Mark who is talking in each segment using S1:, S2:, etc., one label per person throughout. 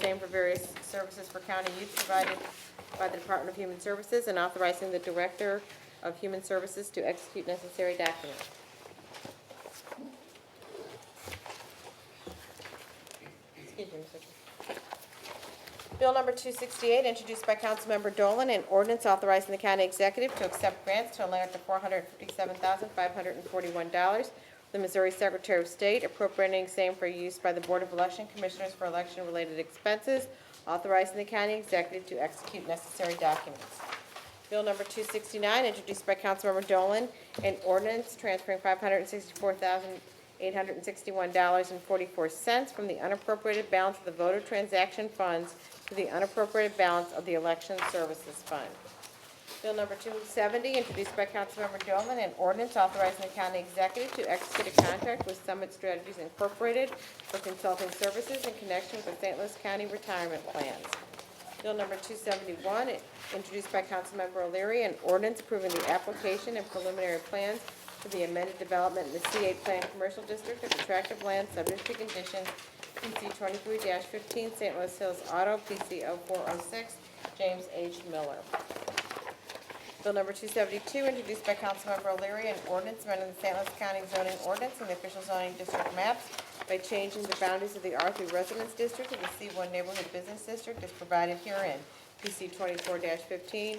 S1: same for various services for county youth provided by the Department of Human Services and authorizing the Director of Human Services to execute necessary documents. Excuse me, Mr. Chair. Bill number 268, introduced by Councilmember Dolan, an ordinance authorizing the county executive to accept grants to a limit of $457,541. The Missouri Secretary of State appropriating same for use by the Board of Election Commissioners for election-related expenses, authorizing the county executive to execute necessary documents. Bill number 269, introduced by Councilmember Dolan, an ordinance transferring $564,861.44 from the unappropriated balance of the voter transaction funds to the unappropriated balance of the election services fund. Bill number 270, introduced by Councilmember Dolan, an ordinance authorizing the county executive to execute a contract with Summit Strategies Incorporated for consulting services in connection with the St. Louis County Retirement Plans. Bill number 271, introduced by Councilmember O'Leary, an ordinance approving the application and preliminary plans for the amended development in the C8 Plan Commercial District of attractive land subject to conditions PC 23-15, St. Louis Hills Auto, oh PC 0406, James H. Miller. Bill number 272, introduced by Councilmember O'Leary, an ordinance amending the St. Louis County zoning ordinance and the official zoning district maps by changing the boundaries of the R3 Residence District to the C1 Neighborhood Business District as provided herein, PC 24-15,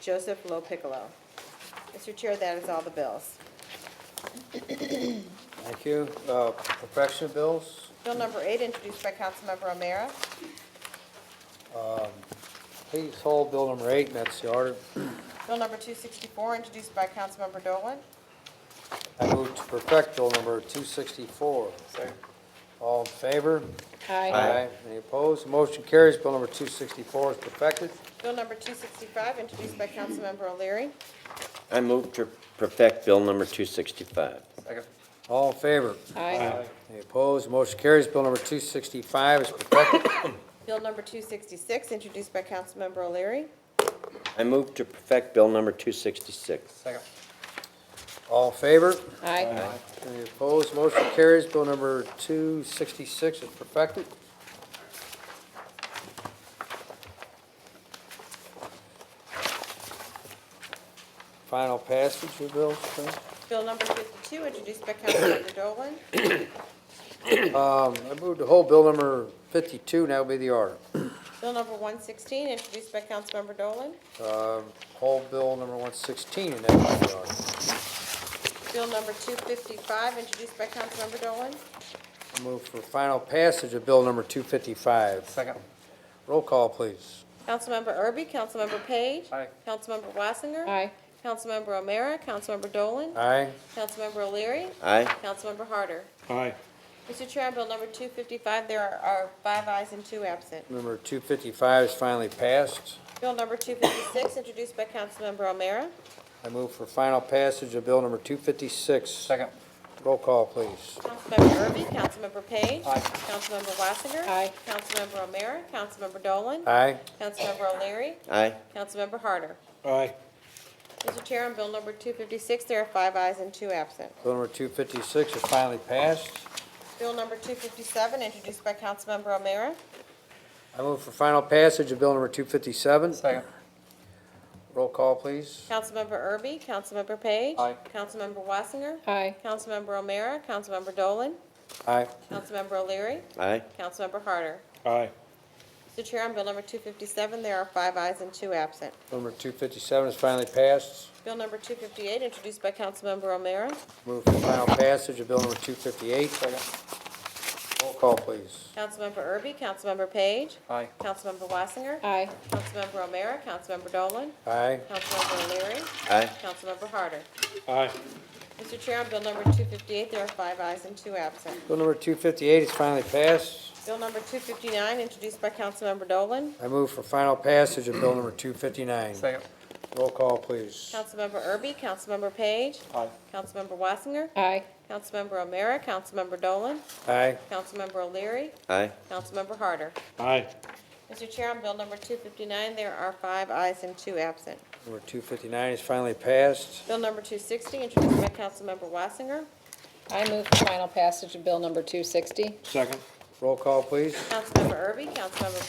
S1: Joseph Lo Piccolo. Mr. Chair, that is all the bills.
S2: Thank you. Uh, Perfection bills,
S1: Bill number 8, introduced by Councilmember O'Meara.
S2: please hold bill number eight, and that's the order.
S1: Bill number 264, introduced by Councilmember Dolan.
S2: I move to perfect bill number 264. All in favor? Any opposed? Motion carries. Bill number 264 is perfected.
S1: Bill number 265, introduced by Councilmember O'Leary.
S3: I move to perfect Bill number 265.
S2: All in favor?
S1: Aye.
S2: Any opposed? Motion carries. Bill number 265 is perfected.
S1: Bill number 266, introduced by Councilmember O'Leary.
S3: I move to perfect Bill number 266.
S2: All in favor?
S1: Aye.
S2: Any opposed? Motion carries. Bill number 266 is perfected. Final passage of bills, please.
S1: Bill number 52, introduced by Councilmember Dolan.
S2: Um, I move to hold bill number 52, and that will be the order.
S1: Bill number 116, introduced by Councilmember Dolan.
S2: Um, Hold bill number 116, and that will be the order.
S1: Bill number 255, introduced by Councilmember Dolan.
S2: I Move for final passage of bill number 255. Second. Roll call, please.
S1: Councilmember Erby, Councilmember Page.
S2: Aye.
S1: Councilmember Wassinger. Aye. Councilmember O'Meara, Councilmember Dolan.
S2: Aye.
S1: Councilmember O'Leary.
S3: Aye.
S1: Councilmember Harder.
S4: Aye.
S1: Mr. Chair, on Bill number 255, there are- are five ayes and two absent.
S2: Number 255 is finally passed.
S1: Bill number 256, introduced by Councilmember O'Meara.
S2: I move for final passage of bill number 256. Second. Roll call, please.
S1: Councilmember Erby, Councilmember Page.
S2: Aye.
S1: Councilmember Wassinger.
S5: Aye.
S1: Councilmember O'Meara, Councilmember Dolan.
S2: Aye.
S1: Councilmember O'Leary.
S3: Aye.
S1: Councilmember Harder.
S4: Aye.
S1: Mr. Chair, on bill number 256, there are five ayes and two absent.
S2: Bill number 256 is finally passed.
S1: Bill number 257, introduced by Councilmember O'Meara.
S2: I move for final passage of bill number 257. Second. Roll call, please.
S1: Councilmember Erby, Councilmember Page.
S2: Aye.
S1: Councilmember Wassinger.
S5: Aye.
S1: Councilmember O'Meara, Councilmember Dolan.
S2: Aye.
S1: Councilmember O'Leary.
S3: Aye.
S1: Councilmember Harder.
S4: Aye.
S1: Mr. Chair, on bill number 257, there are five ayes and two absent.
S2: Bill number 257 is finally passed.
S1: Bill number 258, introduced by Councilmember O'Meara.
S2: Move for final passage of bill number 258. Second. Roll call, please.
S1: Councilmember Erby, Councilmember Page.
S2: Aye.
S1: Councilmember Wassinger.
S5: Aye.
S1: Councilmember O'Meara, Councilmember Dolan.
S2: Aye.
S1: Councilmember O'Leary.
S3: Aye.
S1: Councilmember Harder.
S4: Aye.
S1: Mr. Chair, on Bill number 258, there are five ayes and two absent.
S2: Bill number 258 is finally passed.
S1: Bill number 259, introduced by Councilmember Dolan.
S2: I move for final passage of bill number 259.
S4: Second.
S2: Roll call, please.
S1: Councilmember Erby, Councilmember Page.
S4: Aye.
S1: Councilmember Wassinger.
S5: Aye.
S1: Councilmember O'Meara, Councilmember Dolan.
S2: Aye.
S1: Councilmember O'Leary.
S3: Aye.
S1: Councilmember Harder.
S4: Aye.
S1: Mr. Chair, on Bill number 259, there are five ayes and two absent.
S2: Number 259 is finally passed.
S1: Bill number 260, introduced by Councilmember Wassinger.
S5: I move for final passage of Bill number 260.
S4: Second.
S2: Roll call, please.
S1: Councilmember Erby, Councilmember